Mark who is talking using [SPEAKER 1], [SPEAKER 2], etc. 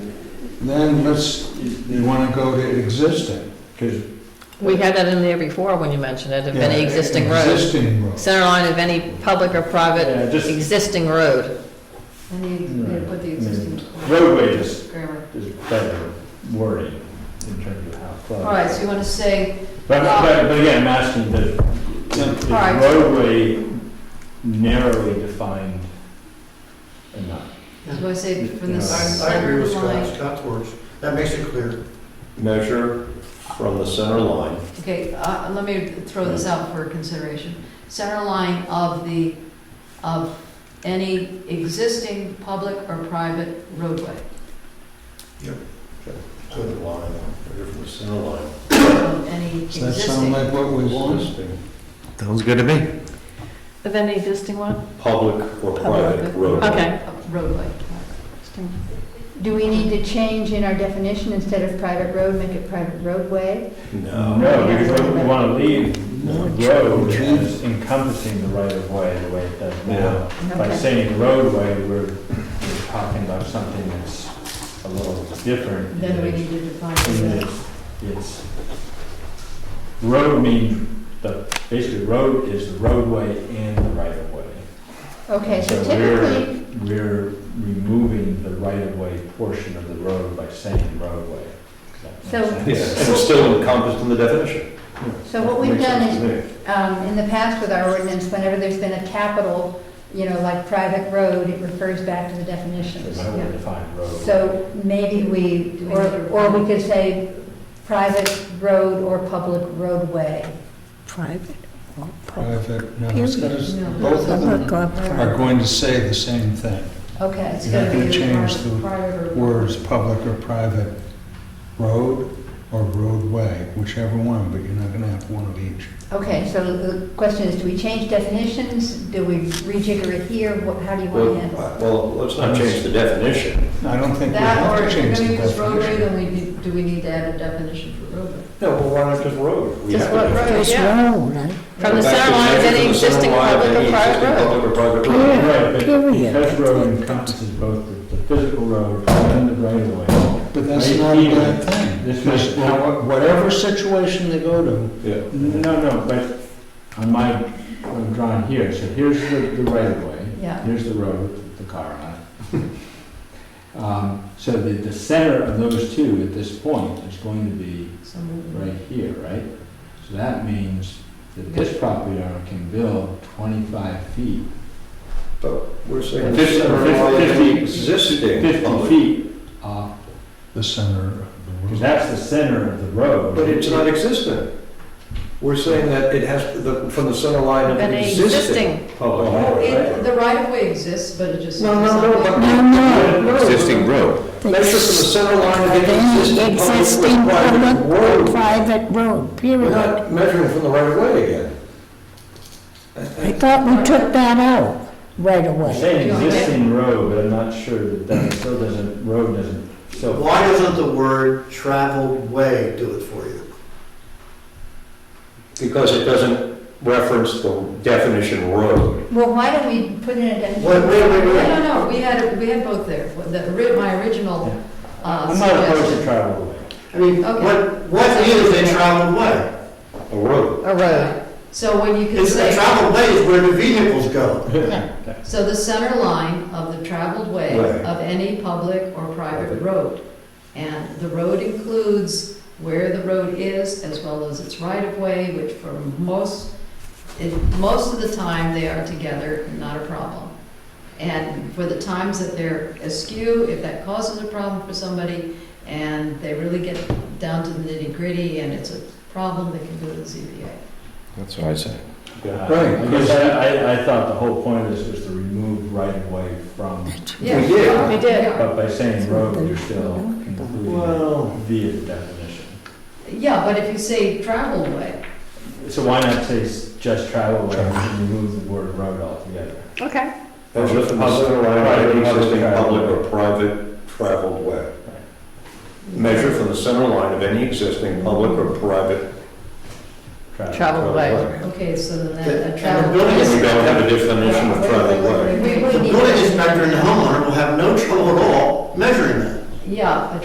[SPEAKER 1] Then let's, you wanna go to existing, because.
[SPEAKER 2] We had that in there before when you mentioned it, of any existing road.
[SPEAKER 1] Existing road.
[SPEAKER 2] Center line of any public or private
[SPEAKER 3] Yeah, just
[SPEAKER 2] existing road.
[SPEAKER 4] And they, they put
[SPEAKER 1] Mm.
[SPEAKER 4] the existing.
[SPEAKER 3] roadway is,
[SPEAKER 4] Grammar.
[SPEAKER 3] is better wording in terms of how close.
[SPEAKER 4] All right, so you want to say,
[SPEAKER 3] But, but, but again, I'm asking that, is
[SPEAKER 4] All right.
[SPEAKER 3] roadway narrowly defined enough?
[SPEAKER 4] you want to say from
[SPEAKER 3] Yeah.
[SPEAKER 4] the
[SPEAKER 5] I, I agree
[SPEAKER 4] center
[SPEAKER 5] with Scott,
[SPEAKER 4] line?
[SPEAKER 5] Scott's words. That makes it clear.
[SPEAKER 6] measure from the center line.
[SPEAKER 4] Okay, uh, let me throw this out for consideration. Center line of the, of any existing public or private roadway.
[SPEAKER 6] Put a line, measure from the center line.
[SPEAKER 4] Of Any
[SPEAKER 1] Does that sound
[SPEAKER 4] existing,
[SPEAKER 1] like what we want?
[SPEAKER 6] Existing
[SPEAKER 7] Sounds good to me.
[SPEAKER 2] Of any existing one?
[SPEAKER 6] Public or private roadway.
[SPEAKER 2] Okay.
[SPEAKER 4] uh, roadway.
[SPEAKER 8] Do we need to change in our definition, instead of private road, make it private roadway?
[SPEAKER 6] No.
[SPEAKER 3] No, because what we want to leave the road
[SPEAKER 1] true.
[SPEAKER 3] is encompassing the right of way the way it does now. By
[SPEAKER 8] Okay.
[SPEAKER 3] saying roadway, we're, we're talking about something that's a little different.
[SPEAKER 4] Then we
[SPEAKER 3] It's-
[SPEAKER 4] need to define
[SPEAKER 3] And
[SPEAKER 4] the
[SPEAKER 3] it's- It's, road means, the, basically road is the roadway and the right of way.
[SPEAKER 8] Okay, so
[SPEAKER 3] So we're-
[SPEAKER 8] typically,
[SPEAKER 3] We're removing the right of way portion of the road by saying roadway. Does that
[SPEAKER 8] So-
[SPEAKER 3] make
[SPEAKER 6] Yeah,
[SPEAKER 3] sense?
[SPEAKER 6] and it's still encompassed in the definition.
[SPEAKER 8] so what we've done is,
[SPEAKER 6] is.
[SPEAKER 8] um, in the past with our ordinance, whenever there's been a capital, you know, like private road, it refers back to the definitions.
[SPEAKER 3] So how we define road.
[SPEAKER 8] So maybe we, or, or we could say private road or public roadway.
[SPEAKER 9] private or public.
[SPEAKER 1] Private, no, it's gonna-
[SPEAKER 4] No.
[SPEAKER 1] both of them are
[SPEAKER 9] Public
[SPEAKER 1] going to say the same thing.
[SPEAKER 8] Okay, it's
[SPEAKER 1] You're not
[SPEAKER 8] gonna be
[SPEAKER 1] gonna change
[SPEAKER 8] private-
[SPEAKER 1] the
[SPEAKER 8] private or-
[SPEAKER 1] Words, public or private, road or roadway, whichever one, but you're not gonna have one of each.
[SPEAKER 8] Okay, so the question is, do we change definitions? Do we rejigger it here? What- How do you want to handle it?
[SPEAKER 6] Well, well, let's not change the definition.
[SPEAKER 1] I don't think we
[SPEAKER 4] That,
[SPEAKER 1] have
[SPEAKER 4] or
[SPEAKER 1] to
[SPEAKER 4] if you're
[SPEAKER 1] change
[SPEAKER 4] going
[SPEAKER 1] the
[SPEAKER 4] to use roadway,
[SPEAKER 1] definition.
[SPEAKER 4] then we, need- do we need to add a definition for roadway?
[SPEAKER 6] No, well, why not just road? We
[SPEAKER 4] Just
[SPEAKER 6] have to
[SPEAKER 4] what
[SPEAKER 6] define-
[SPEAKER 4] road?
[SPEAKER 9] It's wrong, right?
[SPEAKER 2] From the
[SPEAKER 6] Back to
[SPEAKER 2] center line of
[SPEAKER 6] measure
[SPEAKER 2] any
[SPEAKER 6] from the center
[SPEAKER 2] existing
[SPEAKER 6] line of
[SPEAKER 2] public or
[SPEAKER 6] any
[SPEAKER 2] private
[SPEAKER 6] existing
[SPEAKER 2] road.
[SPEAKER 6] Public or private road.
[SPEAKER 9] Yeah.
[SPEAKER 3] Right, but
[SPEAKER 9] Period.
[SPEAKER 3] because road encompasses both the- the physical road and the right of way.
[SPEAKER 1] But that's
[SPEAKER 3] Right
[SPEAKER 1] not a
[SPEAKER 3] here.
[SPEAKER 1] bad thing.
[SPEAKER 3] This
[SPEAKER 1] Because
[SPEAKER 3] is-
[SPEAKER 1] wha- Whatever situation they go to,
[SPEAKER 6] Yeah.
[SPEAKER 3] No, no, but on my, I'm drawing here, so here's the, the right of way.
[SPEAKER 4] Yeah.
[SPEAKER 3] Here's the road, the car on it. Um, So the, the center of those two at this point is going to be
[SPEAKER 4] Some-
[SPEAKER 3] right here, right? So that means that this property owner can build 25 feet,
[SPEAKER 6] But we're saying the
[SPEAKER 3] Fifty-
[SPEAKER 6] center line of
[SPEAKER 3] fifty-
[SPEAKER 6] any existing
[SPEAKER 3] 50
[SPEAKER 6] public.
[SPEAKER 3] feet off,
[SPEAKER 1] the center of the
[SPEAKER 3] because
[SPEAKER 1] road.
[SPEAKER 3] that's the center of the road.
[SPEAKER 6] But it's not existent. We're saying that it has, the- from the center line
[SPEAKER 2] Of
[SPEAKER 6] of an
[SPEAKER 2] any
[SPEAKER 6] existing
[SPEAKER 2] existing,
[SPEAKER 6] public.
[SPEAKER 3] Oh,
[SPEAKER 6] road.
[SPEAKER 4] It, the right of way exists, but it just.
[SPEAKER 6] No, no, no, but.
[SPEAKER 9] No, no.
[SPEAKER 7] Existing road.
[SPEAKER 6] Measure from the center line of
[SPEAKER 9] Any
[SPEAKER 6] any
[SPEAKER 9] existing
[SPEAKER 6] existing public
[SPEAKER 9] public
[SPEAKER 6] or
[SPEAKER 9] or
[SPEAKER 6] private road.
[SPEAKER 9] private road,
[SPEAKER 6] We're
[SPEAKER 9] period.
[SPEAKER 6] not measuring from the right of way again.
[SPEAKER 9] I thought we took that out right
[SPEAKER 3] I'm
[SPEAKER 9] away.
[SPEAKER 3] saying existing road, but I'm not sure that that still doesn't, road doesn't, so.
[SPEAKER 5] Why doesn't the word traveled way do it for you?
[SPEAKER 6] Because it doesn't reference the definition road.
[SPEAKER 8] Well, why don't we put in a definition?
[SPEAKER 5] Wait, wait, wait,
[SPEAKER 4] No,
[SPEAKER 5] wait.
[SPEAKER 4] no, no, we had, we had both there. The, ri- my original uh,
[SPEAKER 3] I'm not opposed to
[SPEAKER 4] suggestion.
[SPEAKER 3] travel away.
[SPEAKER 5] I mean,
[SPEAKER 4] Okay.
[SPEAKER 5] what, what is a traveled way?
[SPEAKER 6] A road.
[SPEAKER 2] a road.
[SPEAKER 4] So when you can
[SPEAKER 5] It's a
[SPEAKER 4] say,
[SPEAKER 5] traveled way is where the vehicles go.
[SPEAKER 4] so the center line of the traveled way
[SPEAKER 6] Right.
[SPEAKER 4] of any public or private
[SPEAKER 6] Private.
[SPEAKER 4] road. And the road includes where the road is as well as its right of way, which for
[SPEAKER 6] Mm-hmm.
[SPEAKER 4] most, it, most of the time they are together, not a problem. And for the times that they're askew, if that causes a problem for somebody and they really get down to the nitty gritty and it's a problem, they can go to the ZBA.
[SPEAKER 7] That's what I say.
[SPEAKER 3] Uh,
[SPEAKER 1] Right.
[SPEAKER 3] Because I, I, I thought the whole point of this was to remove right of way from,
[SPEAKER 6] We
[SPEAKER 4] Yeah.
[SPEAKER 6] did.
[SPEAKER 2] We did.
[SPEAKER 4] Yeah.
[SPEAKER 3] but by saying road, you're still including
[SPEAKER 6] Well,
[SPEAKER 3] via definition.
[SPEAKER 4] Yeah, but if you say travel way,
[SPEAKER 3] So why not say s- just travel way and remove the word road altogether?
[SPEAKER 2] Okay.
[SPEAKER 6] measure from the center line of any existing public or private traveled way. Measure from the center line of any existing public or private.
[SPEAKER 2] Travel way.
[SPEAKER 4] okay, so then
[SPEAKER 5] Yeah,
[SPEAKER 4] that, a
[SPEAKER 5] and
[SPEAKER 4] travel
[SPEAKER 5] the building
[SPEAKER 4] way.
[SPEAKER 5] is-
[SPEAKER 6] We don't have a definition of traveled way.
[SPEAKER 5] The building inspector and the homeowner will have no trouble at all measuring that.
[SPEAKER 4] Yeah, a